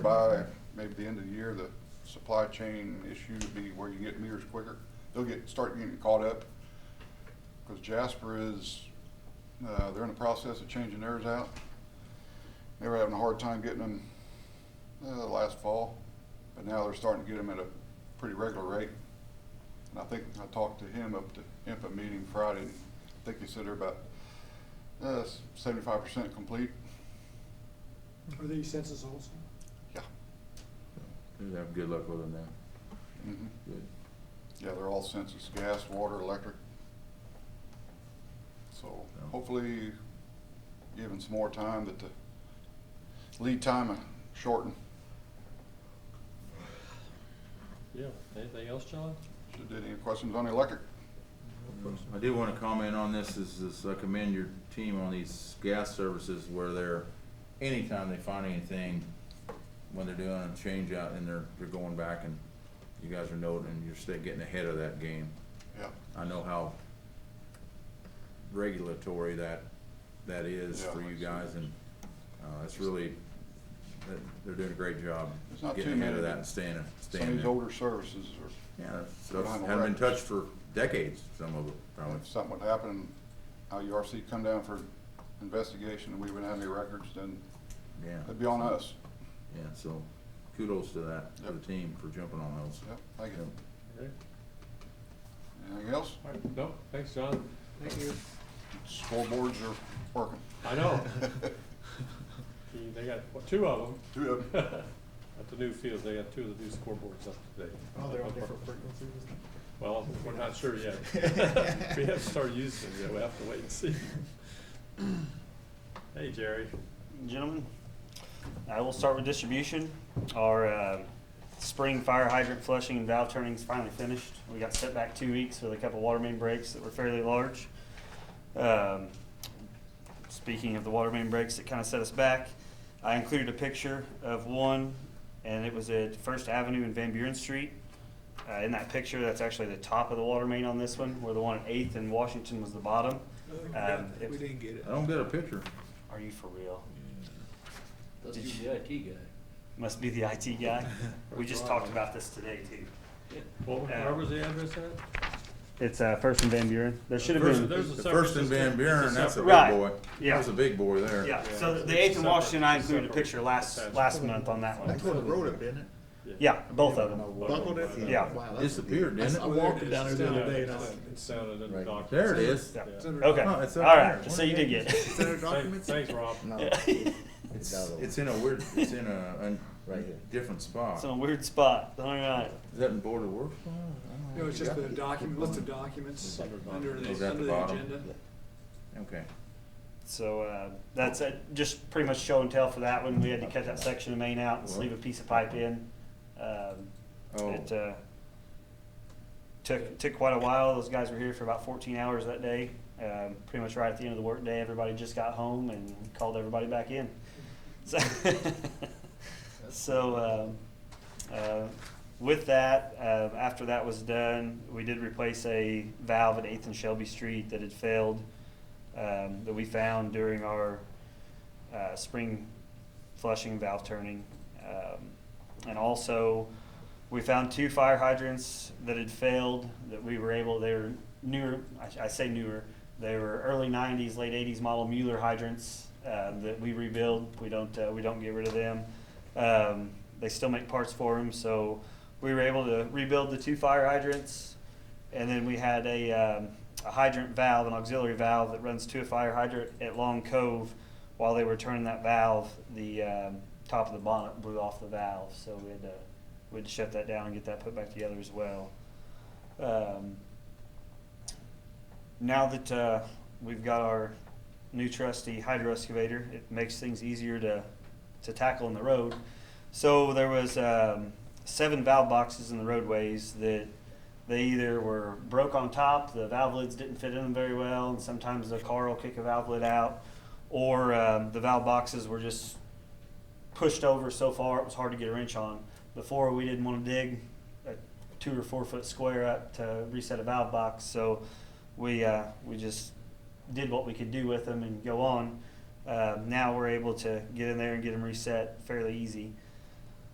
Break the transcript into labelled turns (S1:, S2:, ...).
S1: by maybe the end of the year, the supply chain issue would be where you get meters quicker. They'll get, start getting caught up. Cause Jasper is, uh, they're in the process of changing theirs out. They were having a hard time getting them, uh, last fall, but now they're starting to get them at a pretty regular rate. And I think, I talked to him up to IMPA meeting Friday, and I think he said they're about, uh, seventy-five percent complete.
S2: Are these census also?
S1: Yeah.
S3: We'll have good luck with them now.
S1: Mhm.
S3: Good.
S1: Yeah, they're all census, gas, water, electric. So
S3: Yeah.
S1: hopefully, given some more time, that the lead time will shorten,
S4: Yeah, anything else, John?
S1: should there any questions on the electric?
S3: I do want to comment on this, is, is I commend your team on these gas services where they're, anytime they find anything, when they're doing a change out and they're, they're going back and you guys are noting, you're still getting ahead of that game.
S1: Yeah,
S3: I know how regulatory that, that is
S1: Yeah,
S3: for you
S1: it's-
S3: guys and, uh, it's really, they're- they're doing a great job
S1: There's not
S3: getting
S1: too
S3: ahead of
S1: many.
S3: that and staying,
S1: some of
S3: staying
S1: these
S3: there.
S1: older services are,
S3: Yeah, stuff
S1: Behind the
S3: haven't been
S1: records.
S3: touched for decades, some of it, probably.
S1: if something would happen, IURC come down for investigation and we wouldn't have any records, then
S3: Yeah,
S1: it'd be on us.
S3: yeah, so kudos to that, to the
S1: Yep.
S3: team for jumping on those.
S1: Yep, thank you.
S3: Yep.
S4: Okay.
S1: Anything else?
S4: All right, no, thanks, John.
S2: Thank you.
S1: Scoreboards are working.
S4: I know. Gee, They got, what, two of
S1: Two of them.
S4: them. At the new field, they got two of the new scoreboards up today.
S2: Oh, they're on different frequencies?
S4: Well, we're not sure yet. We haven't started using them yet, we have to wait and see. Hey, Jerry.
S5: Gentlemen, I will start with distribution. Our uh, spring fire hydrant flushing and valve turning is finally finished. We got set back two weeks with a couple water main breaks that were fairly large. Um, Speaking of the water main breaks that kind of set us back, I included a picture of one, and it was at First Avenue and Van Buren Street. Uh, In that picture, that's actually the top of the water main on this one, where the one at Eighth and Washington was the bottom. Um, it-
S2: We didn't get it.
S3: I don't get a picture.
S5: Are you for real?
S6: That's
S5: Did
S6: you
S5: you-
S6: the IT guy.
S5: Must be the IT guy. We just talked about this today too.
S4: What, where was the address at?
S5: It's uh, First and Van Buren. There should have
S4: First-
S5: been,
S4: there's a
S3: The
S4: separate-
S3: first in Van Buren,
S4: it's a
S3: that's a
S4: separate-
S3: big
S5: Right,
S3: boy.
S5: yeah.
S3: That's a big boy there.
S5: yeah, Uh, so
S4: Yeah,
S5: the
S4: it's
S5: Eighth and
S4: separate-
S5: Washington, I included a
S4: separate
S5: picture last,
S4: attached.
S5: last month on that one.
S6: That's where the road up, isn't it?
S5: Yeah, both of them.
S6: Buckled it?
S5: Yeah.
S6: Wow, that's-
S3: Disappeared,
S6: I
S3: didn't
S6: saw- I
S3: it?
S6: walked down there the
S4: Yeah,
S6: other day and I
S4: it's-
S6: went,
S4: It's sounded in the document.
S3: There it is.
S5: Yeah.
S4: Yeah.
S5: Okay,
S3: No, it's up
S5: all
S3: there.
S5: right, so you did get it.
S6: is that our
S4: Thanks,
S6: documents?
S4: thanks, Rob.
S3: It's, it's in a weird, it's in a, un
S6: Right here.
S3: different spot.
S5: It's in a weird spot, all right.
S3: Is that in Board of Works? I don't know.
S2: No, it's just
S3: Yeah.
S2: the document, list of documents
S4: Under document.
S2: under
S3: Is
S2: the,
S3: that
S2: under
S3: the
S2: the
S3: bottom?
S2: agenda.
S3: Okay.
S5: So uh, that's it. just pretty much show and tell for that one. We had to cut that section of main out and sleeve a piece of pipe in. Um,
S3: Oh.
S5: It uh, took took quite a while. Those guys were here for about 14 hours that day. Um, pretty much right at the end of the workday, everybody just got home and called everybody back in. So, so um, uh, with that, uh, after that was done, we did replace a valve at 8th and Shelby Street that had failed um, that we found during our uh, spring flushing valve turning. Um, and also, we found two fire hydrants that had failed that we were able, they were newer, I, I say newer, they were early 90s, late 80s model Mueller hydrants uh, that we rebuild. We don't, uh, we don't get rid of them. Um, they still make parts for them, so we were able to rebuild the two fire hydrants. And then we had a, um, a hydrant valve, an auxiliary valve that runs to a fire hydrant at Long Cove. While they were turning that valve, the, um, top of the bonnet blew off the valve, so we had to, we had to shut that down and get that put back together as well. Um, now that, uh, we've got our new trusty hydro excavator, it makes things easier to, to tackle in the road. So there was, um, seven valve boxes in the roadways that they either were broke on top, the valve lids didn't fit in them very well, and sometimes the car will kick a valve lid out, or um, the valve boxes were just pushed over so far it was hard to get a wrench on. Before we didn't want to dig a two or four foot square up to reset a valve box, so we uh, we just did what we could do with them and go on. Uh, now we're able to get in there and get them reset fairly easy.